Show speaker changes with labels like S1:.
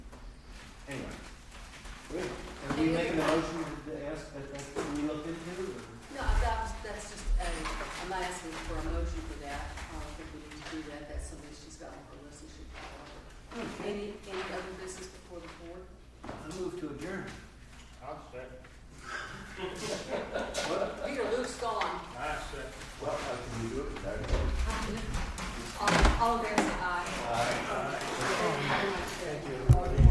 S1: making a motion to ask that that's what we look into? or-
S2: No, that was, that's just a, I'm not asking for a motion for that. I don't think we need to do that. That's something she's got on her list and should follow up. Any, any other business before the board?
S1: I move to adjourn.
S3: I'll say,
S2: Peter, Luke's gone.
S3: I say.
S4: Well, how can you do it?
S2: All, all in favor, say